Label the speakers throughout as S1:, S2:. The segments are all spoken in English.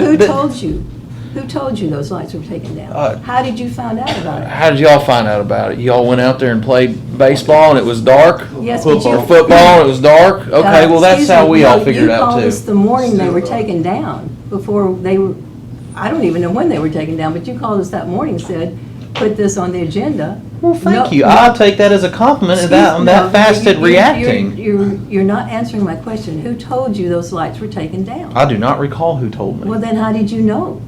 S1: Who
S2: But, but
S1: told you? Who told you those lights were taken
S2: Uh,
S1: down? How did you find out about it?
S2: how did y'all find out about it? Y'all went out there and played baseball and it was dark?
S1: Yes, but you-
S2: Or football and it was dark? Okay,
S1: Uh,
S2: well, that's
S1: excuse
S2: how
S1: me,
S2: we
S1: no,
S2: all figured it out
S1: You called
S2: too.
S1: us the morning they were taken down, before they were, I don't even know when they were taken down, but you called us that morning and said, put this on the agenda.
S2: Well,
S1: No-
S2: thank you. I'll take that as a compliment and that, I'm
S1: Excuse- no,
S2: that fast
S1: you-
S2: at
S1: you- you're-
S2: reacting.
S1: You're, you're not answering my question. Who told you those lights were taken down?
S2: I do not recall who told
S1: Well,
S2: me.
S1: then how did you know?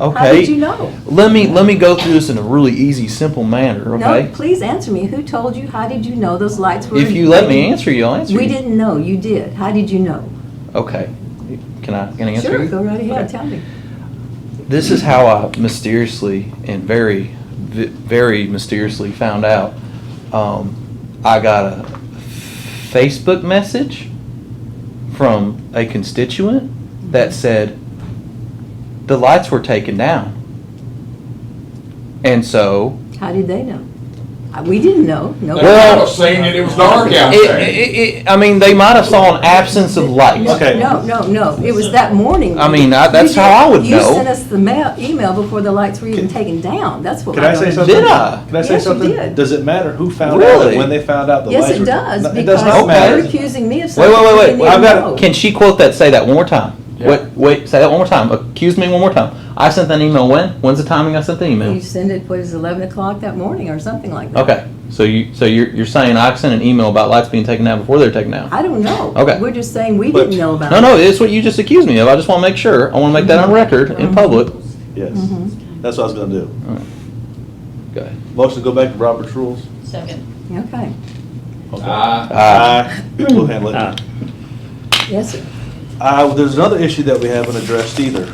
S2: Okay.
S1: How did you know?
S2: Let me, let me go through this in a really easy, simple manner,
S1: No,
S2: okay?
S1: please answer me. Who told you? How did you know those lights were?
S2: If you let me answer you, I'll answer you.
S1: We didn't know. You did. How did you know?
S2: Okay. Can I, can I answer
S1: Sure,
S2: you?
S1: go right ahead.
S2: Okay.
S1: Tell me.
S2: This is how I mysteriously and very, ve- very mysteriously found out. Um, I got a Facebook message from a constituent that said the lights were taken down. And so,
S1: How did they know? Uh, We didn't know. No.
S2: Well,
S3: They might have seen it, it was dark out
S2: it,
S3: there.
S2: it, it, I mean, they might have saw an absence of lights.
S4: Okay.
S1: No, no, no. It was that morning.
S2: I mean, I- that's
S1: You did-
S2: how I would
S1: You
S2: know.
S1: sent us the mail, email before the lights were even taken down. That's what.
S4: Can I say
S1: wanted to
S4: something?
S2: Did
S1: know.
S2: I?
S4: Can I say
S1: Yes, you
S4: something?
S1: did.
S4: Does it matter who found out
S2: Really?
S4: and when they found out the
S1: Yes,
S4: lights
S1: it
S4: were-
S1: does,
S4: No, It does
S1: because
S4: not
S1: you're
S4: matter.
S2: Okay.
S1: accusing me of
S2: Wait,
S1: something.
S2: wait,
S1: you
S2: wait,
S1: didn't
S2: wait. I've
S1: even
S4: got-
S1: know.
S2: Can she quote that? Say that one more time.
S3: Yeah.
S2: Wait, wait. Say that one more time. Accuse me one more time. I sent that email when? When's the timing I sent the
S1: You
S2: email?
S1: sent it, what is it, 11 o'clock that morning or something like that?
S2: Okay. So you so you're you're saying I sent an email about lights being taken down before they're taken down?
S1: I don't know.
S2: Okay.
S1: We're just saying we
S4: But-
S1: didn't know about
S2: No,
S1: it.
S2: no. It's what you just accused me of. I just want to make sure. I want to make that on record in public.
S4: Yes,
S1: Mm-hmm.
S4: that's what I was gonna do.
S2: Go ahead.
S4: Motion to go back to Robert's rules.
S5: Second.
S1: Okay,
S3: Ah,
S4: Aye. We'll handle it.
S1: yes, sir.
S4: Uh, there's another issue that we haven't addressed either.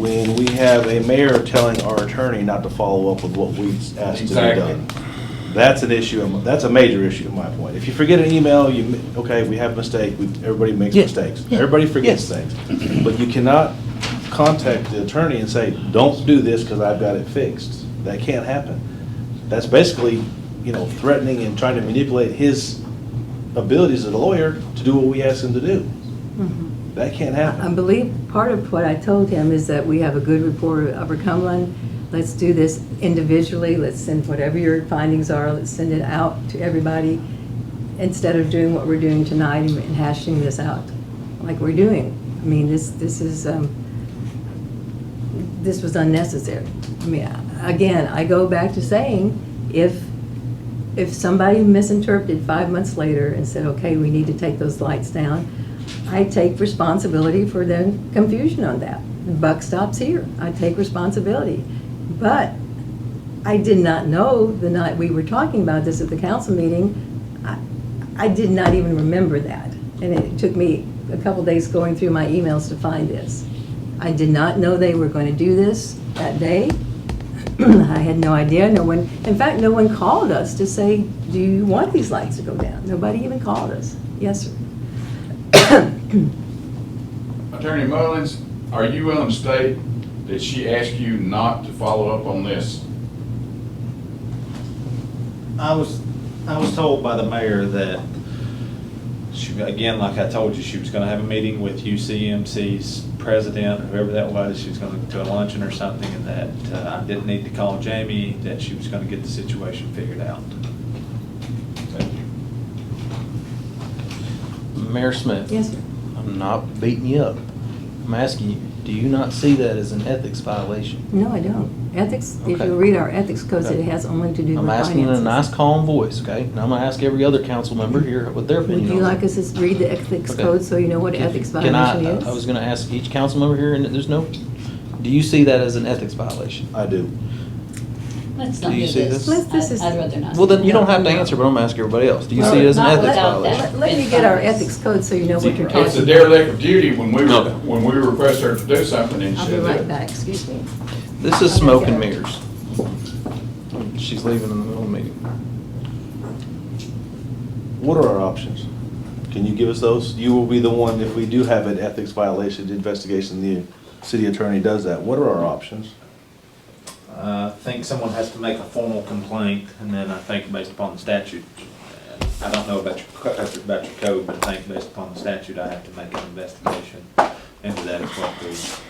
S4: When we have a mayor telling our attorney not to follow up with what we asked to be
S3: Exactly.
S4: done. That's an issue, in my- that's a major issue at my point. If you forget an email, you, mi- okay, we have a mistake, we, everybody makes
S2: Yeah,
S4: mistakes.
S2: yeah,
S4: Everybody forgets things. But you cannot contact the attorney and say, don't do this because I've got it fixed. That can't happen. That's basically, you know, threatening and trying to manipulate his abilities as a lawyer to do what we ask him to do.
S1: Mm-hmm.
S4: That can't
S1: I
S4: happen.
S1: believe part of what I told him is that we have a good report of Upper Cumberland. Let's do this individually, let's send whatever your findings are, let's send it out to everybody instead of doing what we're doing tonight and hashing this out like we're doing. I mean, this, this is, um, this was unnecessary. I mean, I- again, I go back to saying, if, if somebody misinterpreted five months later and said, okay, we need to take those lights down, I take responsibility for the confusion on that. The buck stops here. I take responsibility. But I did not know the night we were talking about this at the council meeting, I- I did not even remember that. And it took me a couple days going through my emails to find this. I did not know they were going to do this that day. I had no idea, no one, in fact, no one called us to say, do you want these lights to go down? Nobody even called us. Yes, sir.
S3: Attorney Mullins, are you willing to state that she asked you not to follow up on this?
S6: I was, I was told by the mayor that she, again, like I told you, she was gonna have a meeting with UCMC's president, whoever that was, she was gonna do a luncheon or something, and that uh, I didn't need to call Jamie, that she was gonna get the situation figured out.
S2: Mayor Smith.
S1: Yes, sir.
S2: I'm not beating you up. I'm asking you. Do you not see that as an ethics violation?
S1: No, I don't. Ethics, if
S2: Okay.
S1: you read our ethics code, it has only to do with
S2: I'm
S1: finances.
S2: asking in a nice, calm voice, okay? And I'm gonna ask every other council member here what their
S1: Would
S2: opinion.
S1: you
S2: on it.
S1: like us to read the ethics
S2: Okay.
S1: code so you know what ethics
S2: Can I-
S1: violation
S2: I was
S1: is?
S2: gonna ask each council member here, and there's no, do you see that as an ethics violation?
S4: I do.
S5: Let's
S2: Do
S5: not do
S2: you
S5: this.
S2: see this?
S1: Let's- this
S5: I-
S1: is-
S5: I'd rather not.
S2: Well, then, you don't
S5: No.
S2: have to answer, but I'm gonna ask everybody else. Do you see it
S1: Well,
S2: as an
S5: not
S2: ethics
S5: without that.
S2: violation?
S1: Let let me get our ethics code so you know what you're talking about.
S3: It's a derelict of duty when we,
S2: Okay.
S3: when we request her to do something and she
S1: I'll
S3: said
S1: be
S3: that.
S1: right back, excuse me.
S2: This is smoke and mirrors. She's leaving in the middle of the meeting.
S4: What are our options? Can you give us those? You will be the one, if we do have an ethics violation the investigation, the city attorney does that. What are our options?
S6: Uh, I think someone has to make a formal complaint, and then I think based upon the statute, uh, I don't know about your, co- about your code, but I think based upon the statute, I have to make an investigation. into that is what we